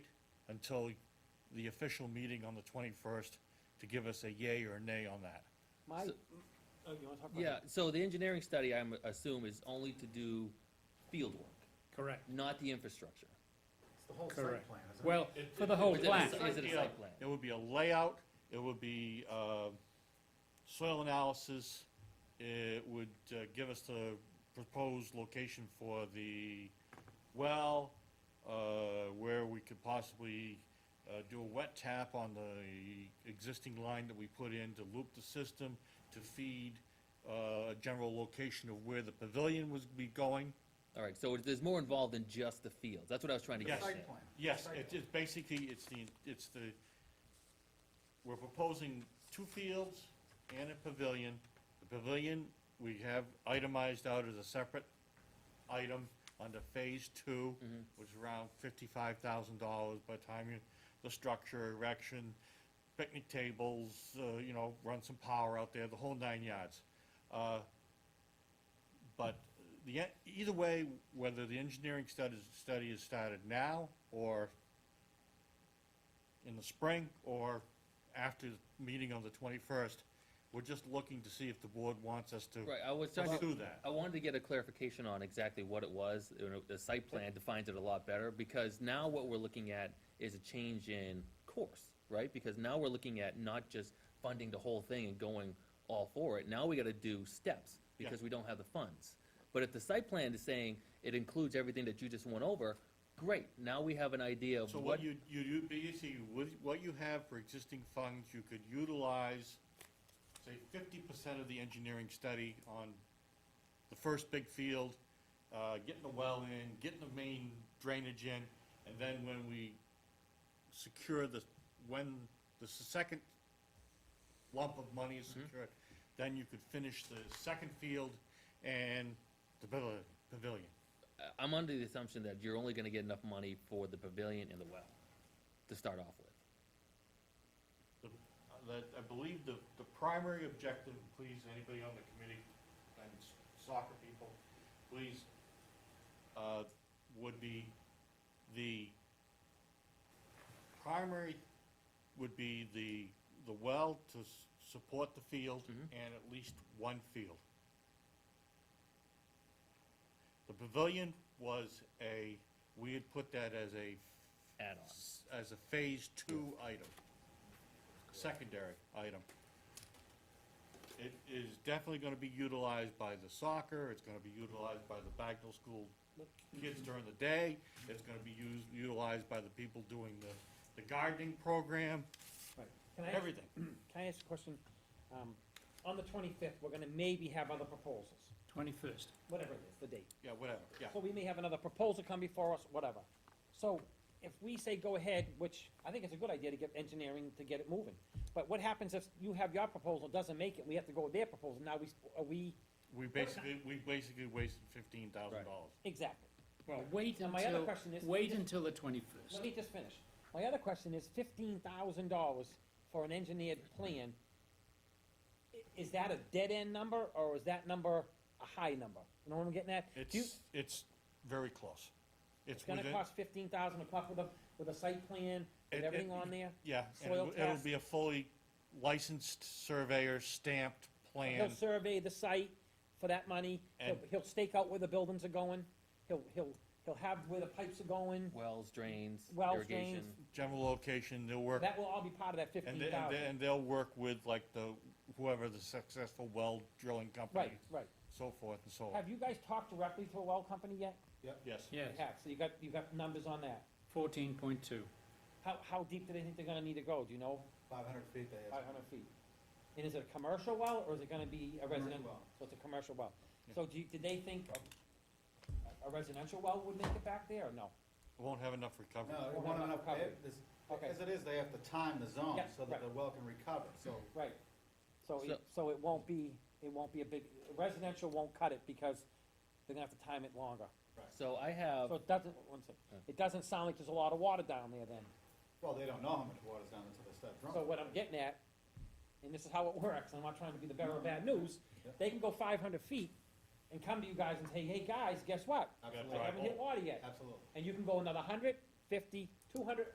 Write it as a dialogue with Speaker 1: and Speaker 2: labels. Speaker 1: until the official meeting on the 21st to give us a yay or nay on that.
Speaker 2: My,
Speaker 3: So-
Speaker 2: oh, you wanna talk about?
Speaker 3: Yeah,
Speaker 2: it?
Speaker 3: so the engineering study, I'm, assume, is only to do field work,
Speaker 4: Correct.
Speaker 3: not the infrastructure.
Speaker 5: It's the whole
Speaker 4: Correct.
Speaker 5: site plan, isn't it?
Speaker 4: Well, for the whole
Speaker 3: Is it a-
Speaker 4: plan.
Speaker 3: Is it a site plan?
Speaker 1: It would be a layout, it would be uh, soil analysis, it would uh, give us the proposed location for the well, uh, where we could possibly uh, do a wet tap on the existing line that we put in to loop the system, to feed uh, a general location of where the pavilion was be going.
Speaker 3: All right, so it- there's more involved than just the fields. That's what I was trying to
Speaker 1: Yes.
Speaker 3: get
Speaker 5: Site
Speaker 3: at.
Speaker 5: plan.
Speaker 1: Yes,
Speaker 5: Site
Speaker 1: it
Speaker 5: plan.
Speaker 1: is basically, it's the, it's the, we're proposing two fields and a pavilion. The pavilion, we have itemized out as a separate item under phase two, which is around fifty-five thousand dollars by the time you, the structure, erection, picnic tables, uh, you know, run some power out there, the whole nine yards. Uh, but the, en- either way, whether the engineering studies, study is started now or in the spring or after the meeting on the twenty-first, we're just looking to see if the board wants us to
Speaker 3: Right, I was trying to,
Speaker 1: pursue that.
Speaker 3: I wanted to get a clarification on exactly what it was. You know, The site plan defines it a lot better, because now what we're looking at is a change in course, right? Because now we're looking at not just funding the whole thing and going all for it. Now we gotta do steps,
Speaker 1: Yeah.
Speaker 3: because we don't have the funds. But if the site plan is saying it includes everything that you just went over, great, now we have an idea of
Speaker 1: So
Speaker 3: what,
Speaker 1: what you, you, you basically, what, what you have for existing funds, you could utilize, say, fifty percent of the engineering study on the first big field, uh, getting the well in, getting the main drainage in, and then when we secure the, when the s- second lump of money is
Speaker 3: Mm-hmm.
Speaker 1: secured, then you could finish the second field and the pavil- pavilion.
Speaker 3: I- I'm under the assumption that you're only gonna get enough money for the pavilion and the well to start off with.
Speaker 1: The- That, I believe the, the primary objective, please, anybody on the committee, and s- soccer people, please, uh, would be the primary would be the, the well to s- support the field and at least one field. The pavilion was a, we had put that as a
Speaker 3: Add-on.
Speaker 1: s- As a phase two item, secondary item. It is definitely gonna be utilized by the soccer, it's gonna be utilized by the Bagnell School kids during the day, it's gonna be used, utilized by the people doing the, the gardening program,
Speaker 2: Right. Can I ask-
Speaker 1: everything.
Speaker 2: Can I ask a question? Um, on the twenty-fifth, we're gonna maybe have other proposals,
Speaker 4: Twenty-first.
Speaker 2: whatever it is, the date.
Speaker 1: Yeah, whatever, yeah.
Speaker 2: So we may have another proposal come before us, whatever. So if we say go ahead, which I think it's a good idea to get engineering to get it moving, but what happens if you have your proposal, doesn't make it, we have to go with their proposal, now we, s- are we,
Speaker 1: We basically, we basically wasted fifteen thousand dollars.
Speaker 2: exactly.
Speaker 4: Well, wait
Speaker 2: Now, my other
Speaker 4: until,
Speaker 2: question is-
Speaker 4: wait until the twenty-first.
Speaker 2: Let me just finish. My other question is fifteen thousand dollars for an engineered plan. I- Is that a dead-end number, or is that number a high number? You know what I'm getting at? Do you-
Speaker 1: It's, it's very close. It's
Speaker 2: It's gonna
Speaker 1: within,
Speaker 2: cost fifteen thousand to come up with a, with a site plan, with
Speaker 1: It-
Speaker 2: everything
Speaker 1: it-
Speaker 2: on there?
Speaker 1: yeah, and
Speaker 2: soil
Speaker 1: it'll- it'll
Speaker 2: test.
Speaker 1: be a fully licensed surveyor stamped plan.
Speaker 2: He'll survey the site for that money, he'll,
Speaker 1: And-
Speaker 2: he'll stake out where the buildings are going, he'll, he'll, he'll have where the pipes are going,
Speaker 3: Wells, drains,
Speaker 2: Wells, drains.
Speaker 3: irrigation.
Speaker 1: general location, they'll work,
Speaker 2: that will all be part of that
Speaker 1: and,
Speaker 2: fifteen
Speaker 1: they- and, they-
Speaker 2: thousand.
Speaker 1: and they'll work with like the, whoever the successful well drilling
Speaker 2: Right,
Speaker 1: company,
Speaker 2: right.
Speaker 1: so forth and so on.
Speaker 2: Have you guys talked directly to a well company yet?
Speaker 1: Yes.
Speaker 4: Yes,
Speaker 2: You have, so you got, you got numbers on that.
Speaker 4: fourteen point two.
Speaker 2: How, how deep do they think they're gonna need to go, do you know?
Speaker 5: Five hundred feet they
Speaker 2: Five
Speaker 5: asked.
Speaker 2: hundred feet. And is it a commercial well, or is it gonna be a resident well?
Speaker 5: well.
Speaker 2: So it's a commercial well.
Speaker 1: Yeah.
Speaker 2: So do you, did they think a- a residential well would make it back there, or no?
Speaker 1: Won't have enough recovery.
Speaker 5: No, it
Speaker 2: We'll
Speaker 5: won't
Speaker 2: have
Speaker 5: enough,
Speaker 2: recovery.
Speaker 5: it- this-
Speaker 2: Okay.
Speaker 5: as it is, they have to time the zone
Speaker 2: Yeah,
Speaker 5: so
Speaker 2: right.
Speaker 5: that the well can recover, so.
Speaker 2: Right. So, it-
Speaker 3: So-
Speaker 2: so it won't be, it won't be a big, residential won't cut it because they're gonna have to time it longer.
Speaker 3: So I have,
Speaker 2: So it doesn't, one second, it doesn't sound like there's a lot of water down there then.
Speaker 5: Well, they don't know how much water's down until they start drilling.
Speaker 2: So what I'm getting at, and this is how it works, I'm not trying to be the bearer of bad news,
Speaker 5: Yep.
Speaker 2: they can go five hundred feet and come to you guys and say, hey, guys, guess what? I
Speaker 5: Absolutely,
Speaker 2: haven't hit water yet.
Speaker 5: absolutely.
Speaker 2: And you can go another 100, 50, 200,